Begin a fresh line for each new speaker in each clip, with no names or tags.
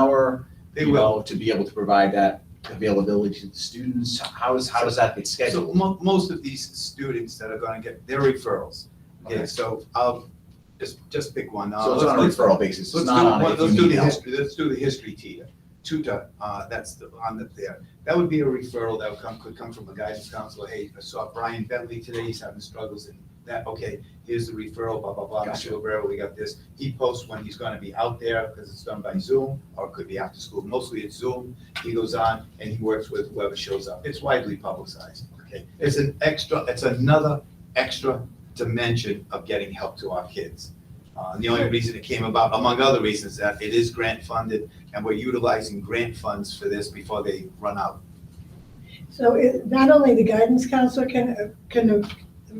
hour?
They
you
will.
know, To be able to provide that availability to the students? How is, how does that get
So
scheduled?
mo- most of these students that are gonna get, they're referrals.
Okay.
Yeah, so I'll just, just pick one. Uh,
So it's on a
let's-
referral basis, it's
Let's
not
do-
on a,
well,
if
Let's
you
do
need
the
help.
history, let's do the history tier, tutor, uh, that's the, on the, there. That would be a referral that would come, could come from a guidance counselor, hey, I saw Brian Bentley today, he's having struggles in that, okay, here's the referral, blah, blah, blah, Mr.
Gotcha.
Rivera, we got this. He posts when he's gonna be out there, because it's done by Zoom, or it could be after school, mostly it's Zoom. He goes on and he works with whoever shows up, it's widely publicized, okay? It's an extra, it's another extra dimension of getting help to our kids. Uh, and the only reason it came about, among other reasons, that it is grant funded and we're utilizing grant funds for this before they run out.
So it, not only the guidance counselor can, uh, can a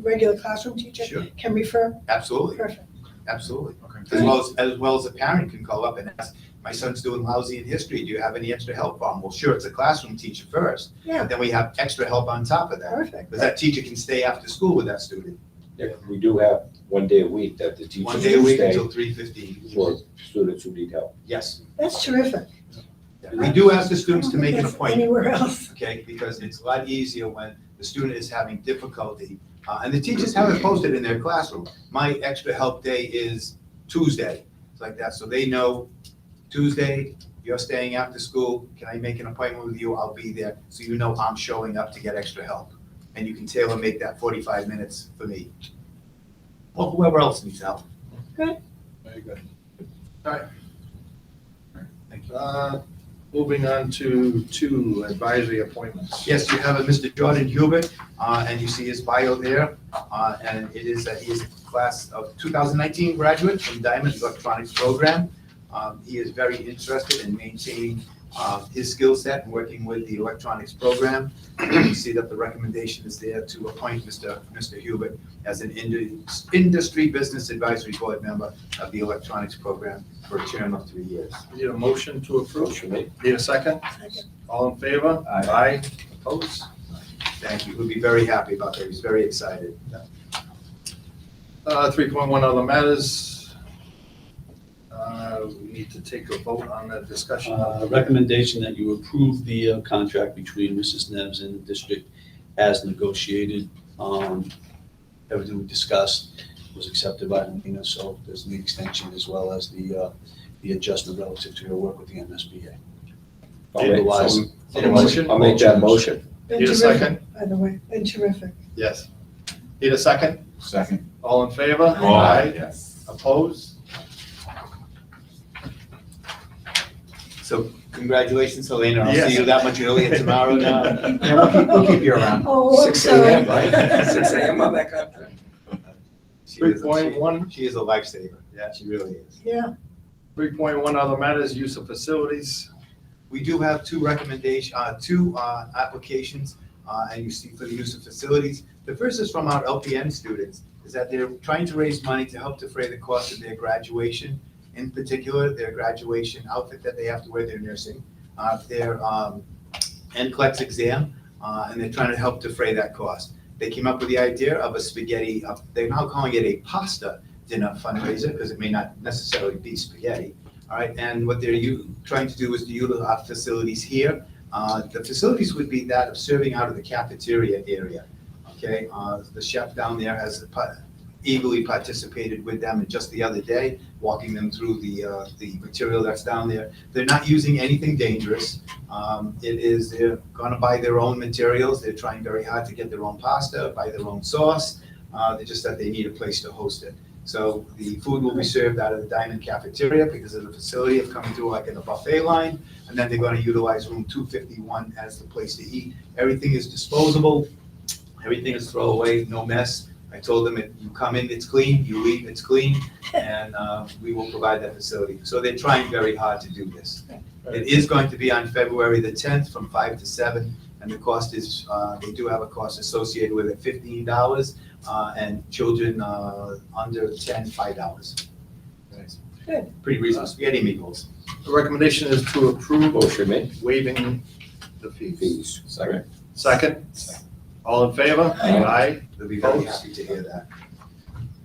regular classroom teacher
Sure.
can refer,
Absolutely,
perfect.
absolutely.
Okay.
As well as, as well as a parent can call up and ask, my son's doing lousy in history, do you have any extra help on? Well, sure, it's a classroom teacher first.
Yeah.
But then we have extra help on top of that,
Perfect.
because that teacher can stay after school with that student.
Yeah, we do have one day a week that the
One
teachers
day a
do
week
stay
until three fifteen.
for students who need help.
Yes.
That's terrific.
We do ask the students to make an
That's
appointment.
Anywhere else.
okay? Because it's a lot easier when the student is having difficulty, uh, and the teachers have it posted in their classroom. My extra help day is Tuesday, it's like that, so they know Tuesday, you're staying after school, can I make an appointment with you? I'll be there, so you know I'm showing up to get extra help. And you can tailor make that forty-five minutes for me. Or whoever else needs help.
Very good.
Thank you.
Uh, Moving on to two advisory appointments.
Yes, you have a Mr. Jordan Hubert, uh, and you see his bio there. uh, And it is that he is a class of 2019 graduate from Diamond Electronics Program. Um, He is very interested in maintaining uh, his skill set and working with the electronics program. You see that the recommendation is there to appoint Mr. Mr. Hubert as an indu- industry business advisory board member of the electronics program for a term of three years.
Need a motion to approve?
Motion made.
Need a second?
Second.
All in favor?
Aye.
Opposed?
Thank you. We'll be very happy about that. He's very excited.
Uh, 3.1 other matters. Uh, We need to take a vote on the discussion.
Uh, Recommendation that you approve the uh, contract between Mrs. Neves and the district as negotiated. Um, Everything we discussed was accepted by Lena, so there's the extension as well as the, uh, the adjustment relative to her work with the MSBA.
I'll make-
Otherwise-
Need a motion?
I'll make that motion.
Been
Need a
terrific,
second?
By the way, been terrific.
Yes. Need a second?
Second.
All in favor?
Aye.
Yes.
Opposed?
So congratulations, Helena. I'll see you
Yes.
that much earlier tomorrow now.
Yeah, we'll keep, we'll keep you around.
Oh, I'm
6 a.m.,
sorry.
right?
6 a.m.
on that contract.
She
Three
is,
point
she,
one.
she is a lifesaver. Yeah, she really is.
Yeah,
Three point one other matters, use of facilities.
We do have two recommendation, uh, two, uh, applications, uh, and you see for the use of facilities. The first is from our LPN students, is that they're trying to raise money to help defray the cost of their graduation. In particular, their graduation outfit that they have to wear, their nursing, uh, their, um, NCLEX exam, uh, and they're trying to help defray that cost. They came up with the idea of a spaghetti, uh, they're now calling it a pasta dinner fundraiser, because it may not necessarily be spaghetti. All right, and what they're u- trying to do is to utilize our facilities here. Uh, The facilities would be that of serving out of the cafeteria area, okay? Uh, The chef down there has pa- eagerly participated with them and just the other day, walking them through the, uh, the material that's down there. They're not using anything dangerous. Um, It is, they're gonna buy their own materials, they're trying very hard to get their own pasta, buy their own sauce. Uh, They just that they need a place to host it. So the food will be served out of the Diamond Cafeteria because of the facility of coming through like in a buffet line. And then they're gonna utilize room two fifty-one as the place to eat. Everything is disposable, everything is throwaway, no mess. I told them, if you come in, it's clean, you leave, it's clean, and, uh, we will provide that facility. So they're trying very hard to do this. It is going to be on February the tenth from five to seven, and the cost is, uh, they do have a cost associated with it, fifteen dollars uh, and children uh, under 10, $5.
Good.
Pretty reasonable, spaghetti meatballs.
The recommendation is to approve
Motion made.
waiving the fees.
Fees.
Second.
Second? All in favor?
Aye.
They'll be very happy to hear that.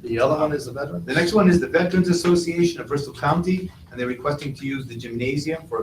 The other one is the veteran?
The next one is the Veterans Association of Bristol County, and they're requesting to use the gymnasium for a